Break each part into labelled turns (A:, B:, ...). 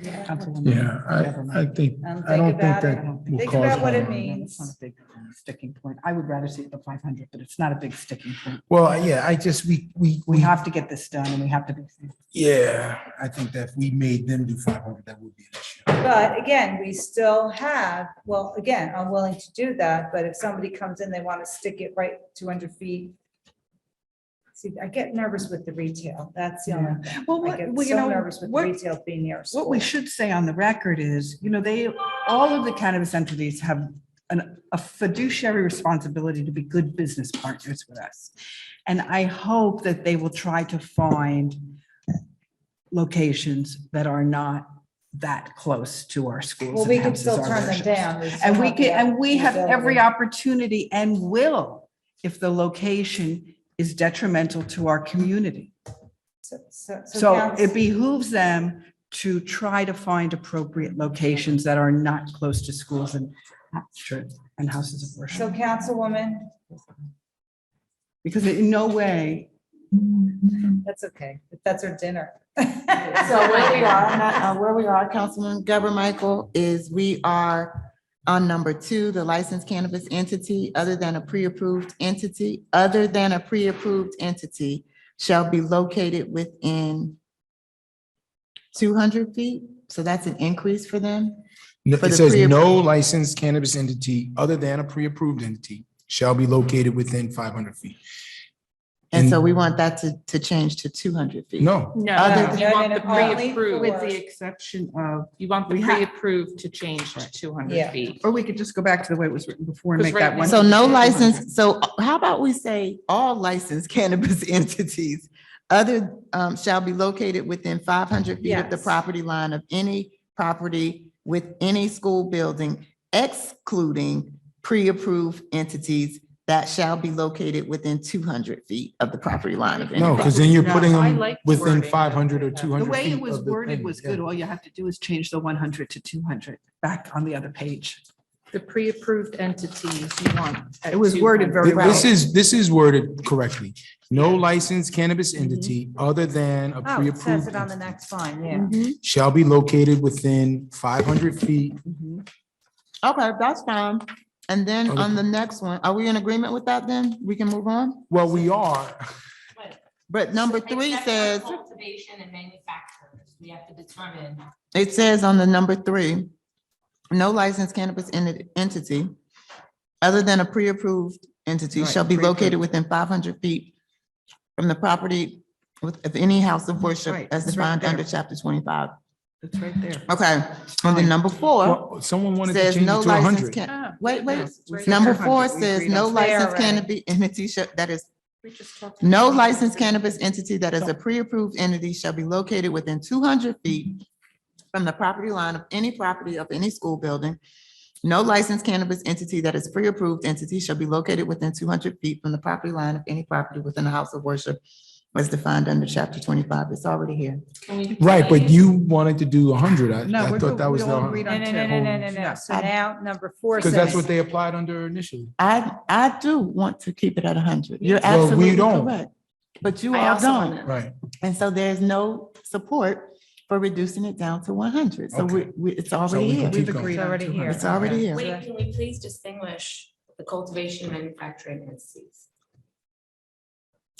A: Councilwoman.
B: Yeah,
C: Mm-hmm.
B: I, I think,
A: Um,
B: I don't
A: think
B: think
A: about
B: that
A: it.
B: will
A: Think
B: cause.
A: about what it
B: harm.
A: means.
C: It's not a big sticking point. I would rather see it at five hundred, but it's not a big sticking point.
B: Well, yeah, I just, we, we,
C: We
B: we,
C: have to get this done and we have to be.
B: yeah, I think that if we made them do five hundred, that would be an issue.
A: But again, we still have, well, again, I'm willing to do that, but if somebody comes in, they want to stick it right two hundred feet. See, I get nervous with the retail. That's the only, thing.
C: Well,
A: I
C: what,
A: get
C: well, you
A: so
C: know,
A: nervous with
C: what,
A: retail being near a
C: what we
A: school.
C: should say on the record is, you know, they, all of the cannabis entities have an, a fiduciary responsibility to be good business partners with us. And I hope that they will try to find locations that are not that close to our schools.
A: Well,
C: and
A: we can
C: houses,
A: still
C: our
A: turn them
C: workshops.
A: down. still
C: And we
A: have the
C: can, and we have every
A: ability.
C: opportunity and will, if the location is detrimental to our community.
A: So- So, so
C: So it
A: council-
C: behooves them to try to find appropriate locations that are not close to schools and and houses of
A: so
C: worship.
A: councilwoman,
C: Because in no way,
A: that's okay. That's our dinner.
D: So where we are, uh, where we are, Councilman Gabor Michael, is we are on number two, the licensed cannabis entity, other than a pre-approved entity, other than a pre-approved entity shall be located within two hundred feet. So that's an increase for them.
B: No,
D: For
B: It
D: the
B: says
D: pre-appro-
B: no licensed cannabis entity other than a pre-approved entity shall be located within five hundred feet.
D: And so
B: And-
D: we want that to, to change to two hundred feet.
B: No,
E: No,
D: Other
E: you want
A: than
E: the
A: only
E: pre-approved,
C: with the
E: with
C: exception of,
E: the- you want the
C: We have-
E: pre-approved to change to two
A: Yeah.
E: hundred feet.
C: or we could just go back to the way it was written before and
E: Because
C: make that
E: right
C: one.
E: now-
D: So no license, so how about we say all licensed cannabis entities other um, shall be located within five hundred feet of the
A: Yes.
D: property line of any property with any school building excluding pre-approved entities that shall be located within two hundred feet of the property line of any.
B: no,
D: property.
B: because Oh, then you're
E: No,
B: putting
E: I
B: them
E: like the
B: within
E: wording.
B: five hundred or two
C: The
B: hundred.
C: way it was worded was good. All you have to do is change the one hundred to two hundred back on the other page.
E: The pre-approved entities you want. at
C: It was worded
E: 200.
C: very well.
B: This is, this is worded correctly. No licensed cannabis entity other than a
A: Oh, it says
B: pre-approved
A: it Mm-hmm. on the
B: entity
A: next line, yeah.
D: Mhm.
B: shall be located within five hundred feet.
D: Okay, that's fine. And then
B: Okay.
D: on the next one, are we in agreement with that then? We can move on?
B: Well, we are.
D: But number three
F: Except for
D: says,
F: Cultivation and manufacturers, we have to determine.
D: It says on the number three, no licensed cannabis en- entity other than a pre-approved entity
C: Right,
D: shall be located
C: pre-approved.
D: within five hundred feet from the property with, of any house of worship
C: Right,
D: as
C: it's right
D: defined under
C: there.
D: chapter twenty-five.
C: It's right there.
D: Okay, and then number four
B: Well, Someone wanted to
D: Oh. says
B: change
D: no
B: it to
D: licensed
B: hundred.
D: can,
E: Ah,
D: wait, wait.
E: yes, we said
D: Number
E: 200.
D: four
C: We
D: says
C: agreed
D: no
C: on-
A: There,
D: licensed
A: right.
D: cannabis entity shall, that is,
E: We just talked-
D: no
B: Um,
D: licensed cannabis entity that is a pre-approved entity shall be located within two hundred feet from the property line of any property of any school building. No licensed cannabis entity that is pre-approved entity shall be located within two hundred feet from the property line of any property within a house of worship as defined under chapter twenty-five. It's already here.
F: Can we
B: Right, but
F: delay?
B: you wanted to do hundred. I,
C: No,
B: I
C: we're
B: thought
C: good.
B: that
C: We
B: was
C: all
B: the,
C: agreed
A: No,
C: on
A: no,
C: two.
A: no, no, no, no, no. So now number four.
B: because that's what
A: says-
B: they applied under initially.
D: I, I do want to keep it at hundred. You're
B: Well, we
D: absolutely
B: don't.
D: correct. But you
E: I
D: all
E: also
D: don't.
B: Right.
D: And so there's no support for reducing it down to one hundred. So
B: Okay.
D: we, we, it's
B: So we
D: already
B: can
D: here.
B: keep
C: We've
B: going.
C: agreed on
A: already here.
C: 200.
D: It's already here.
F: Wait, can we please distinguish the cultivation and manufacturing entities?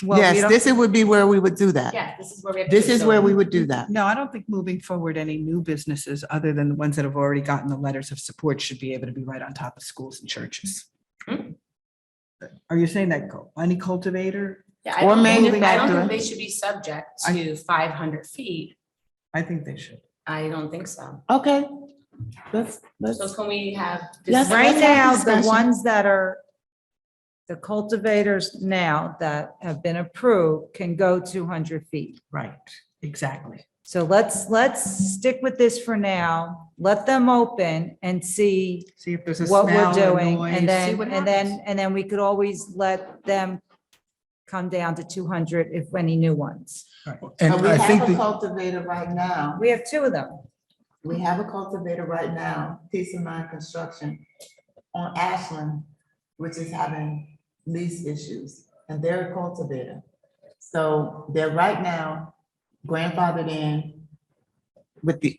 C: Well, we
D: Yes,
C: don't-
D: this it would be where we would do that.
F: Yeah, this is where we have. to
D: Uh, This
F: do
D: is
F: so.
D: where we would do that.
C: No, I don't think moving forward, any new businesses other than the ones that have already gotten the letters of support should be able to be right on top of schools and churches.
F: Hmm.
C: Are you saying that cul- any cultivator?
F: Yeah, I
D: or
F: don't think- I don't
D: manufacturing.
F: think they should be subject
C: I-
F: to five hundred feet.
C: I think they should.
F: I don't think so.
D: Okay. Let's,
F: So
D: let's,
F: can we have?
D: Yes,
F: this-
A: Right
D: Let's have
A: now, the
D: discussion.
A: ones that are, the cultivators now that have been approved can go two hundred feet.
C: Right, exactly.
A: So let's, let's stick with this for now. Let them open and see
C: See if there's a
A: what we're
C: smell or
A: doing.
C: noise.
A: And
C: see
A: then,
C: what
A: and
C: happens.
A: then, and then we could always let them come down to two hundred if any new ones.
B: And
D: we
B: I think,
D: have a
B: the-
D: cultivator right now.
A: We have two of them.
D: We have a cultivator right now, Peace of Mind Construction on Ashland, which is having lease issues, and they're a cultivator. So they're right now grandfathered in with the